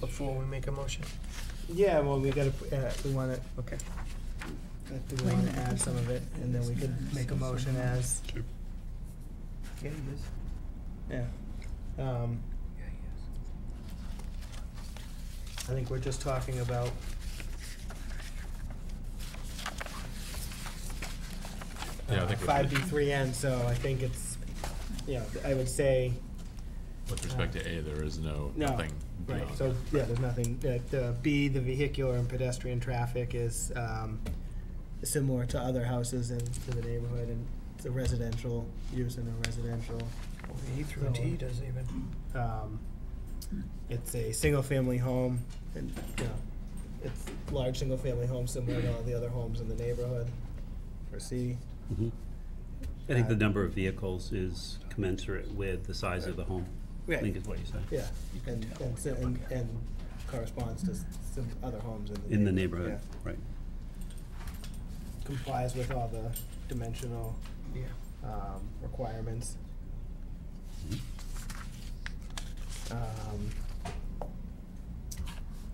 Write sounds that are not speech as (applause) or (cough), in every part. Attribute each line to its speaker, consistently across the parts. Speaker 1: before we make a motion?
Speaker 2: Yeah, well, we gotta, p- uh, we wanna,
Speaker 1: Okay.
Speaker 2: if we wanna add some of it, and then we could make a motion as,
Speaker 1: Yeah, he is.
Speaker 2: yeah. Um,
Speaker 1: Yeah, he
Speaker 2: I think we're just talking about.
Speaker 3: Yeah, I think we
Speaker 2: uh, Five B
Speaker 3: should.
Speaker 2: three N, so I think it's, you know, I would say,
Speaker 3: With respect to A, there is no,
Speaker 2: No.
Speaker 3: nothing
Speaker 2: right,
Speaker 3: beyond.
Speaker 2: so, yeah, there's nothing, uh, the B, the vehicular and pedestrian traffic is, um, similar to other houses in, to the neighborhood, and it's a residential use in a residential.
Speaker 1: is. Well, the E through D doesn't even,
Speaker 2: Um, it's a single-family home, and, you know, it's a large single-family home similar to all the other homes in the neighborhood, for C.
Speaker 4: Mhm. I think the number of vehicles is commensurate with the size of the home, I
Speaker 2: Right.
Speaker 4: think is what you said.
Speaker 2: Yeah, and, and, si- and, and corresponds to s- some other homes in the neighborhood.
Speaker 4: In the neighborhood,
Speaker 2: yeah.
Speaker 4: right.
Speaker 2: Complies with all the dimensional,
Speaker 1: yeah.
Speaker 2: um, requirements. Um,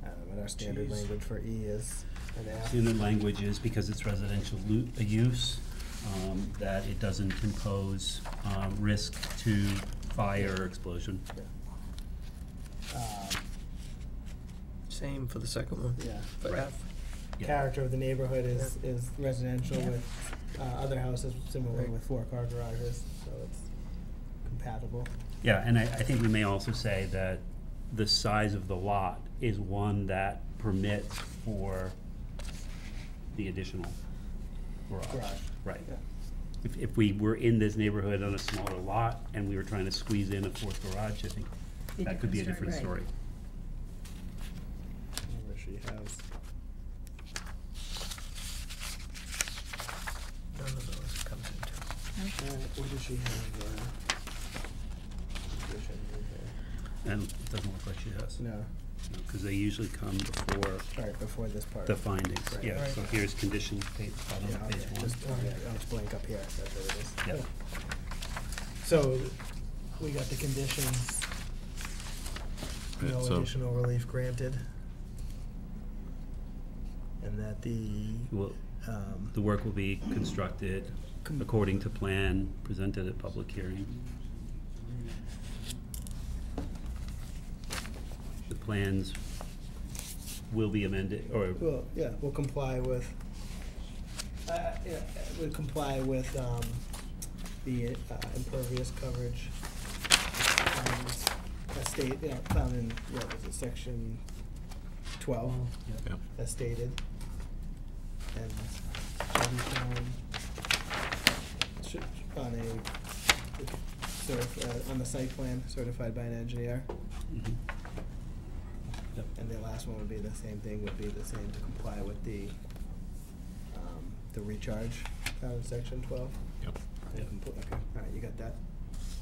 Speaker 2: I don't know what our standard
Speaker 1: Jeez.
Speaker 2: language for E is, an F.
Speaker 4: Standard language is because it's residential lu- uh, use, um, that it doesn't impose um, risk to fire or explosion.
Speaker 2: um,
Speaker 1: Same for the second one.
Speaker 2: yeah.
Speaker 1: For
Speaker 4: Right.
Speaker 1: F.
Speaker 4: Yeah.
Speaker 2: Character of the neighborhood is, is residential with, uh, other houses similar
Speaker 1: Right.
Speaker 2: with four-car garages, so it's compatible.
Speaker 4: Yeah, and I, I think we may also say that the size of the lot is one that permits for the additional garage.
Speaker 2: Garage.
Speaker 4: Right.
Speaker 2: Yeah.
Speaker 4: If, if we were in this neighborhood on a smaller lot and we were trying to squeeze in a fourth garage, I think that could be a different story.
Speaker 2: Whatever she has. uh,
Speaker 1: None of those comes into.
Speaker 2: Uh, what does she have, uh? condition in
Speaker 4: And it doesn't look like she has,
Speaker 2: here? No,
Speaker 4: because they usually come before
Speaker 2: alright, before this part.
Speaker 4: the findings.
Speaker 2: Right.
Speaker 4: Yeah, so here's condition, page, bottom
Speaker 2: Yeah,
Speaker 4: of
Speaker 2: okay,
Speaker 4: page one.
Speaker 2: just, oh, yeah, oh, it's blank up here, that's what it is.
Speaker 4: Yeah.
Speaker 2: So, we got the conditions.
Speaker 3: Right,
Speaker 2: No
Speaker 3: so-
Speaker 2: additional relief granted. And that the,
Speaker 4: Well,
Speaker 2: um,
Speaker 4: the work will be constructed
Speaker 2: Com-
Speaker 4: according to plan presented at public hearing. The plans will be amended, or
Speaker 2: well, yeah, will comply with, uh, yeah, will comply with, um, the uh, impervious coverage. requirements As stated, yeah, found in, what was it, section twelve?
Speaker 3: Yep.
Speaker 2: as stated. And shall be shown, should, on a, cert, uh, on the site plan certified by an engineer.
Speaker 4: Mhm. Yep.
Speaker 2: And the last one would be the same thing, would be the same to comply with the, um, the recharge found in section twelve.
Speaker 3: Yep.
Speaker 2: And
Speaker 4: Yep.
Speaker 2: compl- Okay, alright, you got that?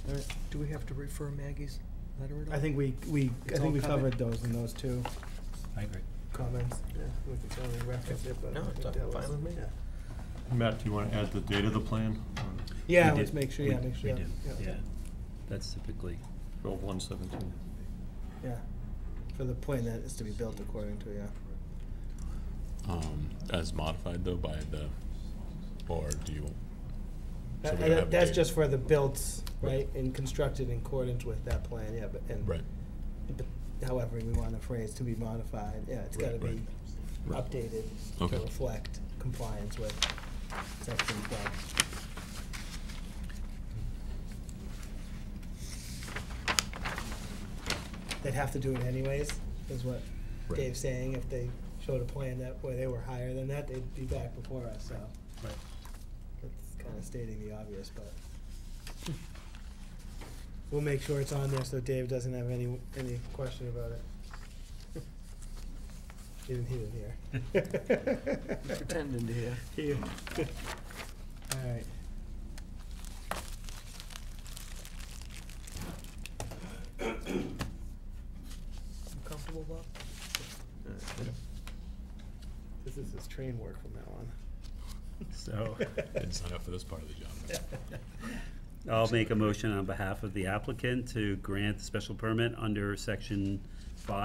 Speaker 1: All right, do we have to refer Maggie's letter at all?
Speaker 2: I think we, we, I
Speaker 1: It's all
Speaker 2: think we
Speaker 1: covered.
Speaker 2: covered those in those two
Speaker 4: I agree.
Speaker 2: comments. Yeah, we could totally reference it, but
Speaker 1: No,
Speaker 2: I
Speaker 1: it's
Speaker 2: think that was-
Speaker 1: fine with me.
Speaker 2: yeah.
Speaker 5: Matt, do you want to add the date of the plan?
Speaker 2: Yeah,
Speaker 4: We
Speaker 2: let's
Speaker 4: did-
Speaker 2: make sure,
Speaker 4: we-
Speaker 2: yeah, make sure.
Speaker 4: We
Speaker 2: yeah,
Speaker 4: do, yeah. That's typically,
Speaker 5: Twelve one seventeen.
Speaker 2: Yeah, for the point that is to be built according to, yeah.
Speaker 3: Um, as modified though by the, or do you, So
Speaker 2: That-
Speaker 3: we don't have a
Speaker 2: that's
Speaker 3: date.
Speaker 2: just for the built, right, and constructed in accordance with that plan, yeah, but, and.
Speaker 3: right,
Speaker 2: but However, we want the phrase to be modified, yeah, it's gotta
Speaker 3: Right,
Speaker 2: be
Speaker 3: right. Right.
Speaker 2: updated to
Speaker 3: Okay.
Speaker 2: reflect compliance with section twelve. They'd have to do it anyways, is what
Speaker 3: Right.
Speaker 2: Dave's saying, if they showed a plan that, where they were higher than that, they'd be back before us, so.
Speaker 4: Right.
Speaker 2: That's kinda stating the obvious, but. We'll make sure it's on there so Dave doesn't have any, any question about it. He didn't, he didn't hear.
Speaker 1: Pretending to
Speaker 2: (laughs)
Speaker 1: hear.
Speaker 2: He- Alright.
Speaker 1: Comfortable, Bob?
Speaker 2: This is his train work from now on.
Speaker 4: so
Speaker 2: (laughs)
Speaker 3: didn't sign up for this part of the job.
Speaker 4: I'll make a motion on behalf of the applicant to grant the special permit under section five